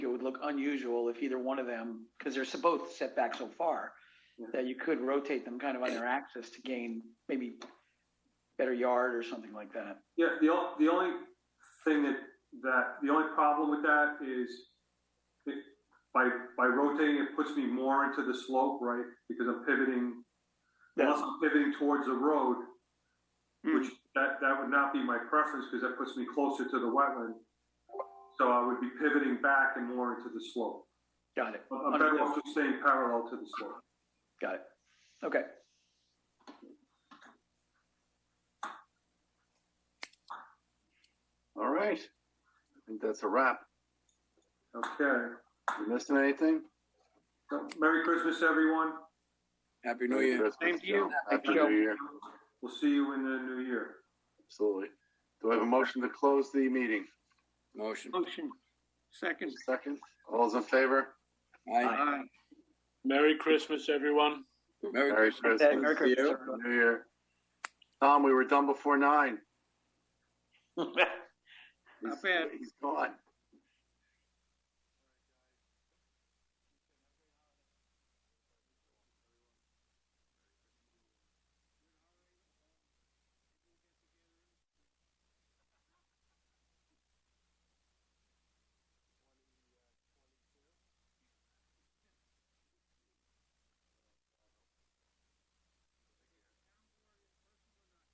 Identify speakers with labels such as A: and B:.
A: look unusual if either one of them, because they're so- both set back so far,
B: Yeah.
A: that you could rotate them kind of on their axis to gain maybe better yard or something like that.
B: Yeah, the, o- the only thing that, that, the only problem with that is it, by, by rotating, it puts me more into the slope, right? Because I'm pivoting, unless I'm pivoting towards the road, which that, that would not be my preference because that puts me closer to the wetland. So I would be pivoting back and more into the slope.
A: Got it,
B: I'm better off just staying parallel to the slope.
A: got it. Okay,
C: All right. I think that's a wrap.
B: Okay.
C: You missing anything?
B: So Merry Christmas, everyone.
D: Happy New Year.
C: Same
A: to you.
C: Happy
A: Thank you.
C: New Year.
B: We'll see you in the new year.
C: Absolutely. Do I have a motion to close the meeting?
D: Motion.
E: Motion, second.
C: Second, all those in favor?
D: Aye.
E: Aye.
F: Merry Christmas, everyone.
D: Merry
C: Merry
D: Christmas.
C: Christmas.
A: Merry
D: to you.
A: Christmas, everyone.
C: New Year. Tom, we were done before nine.
E: Not bad.
C: He's gone.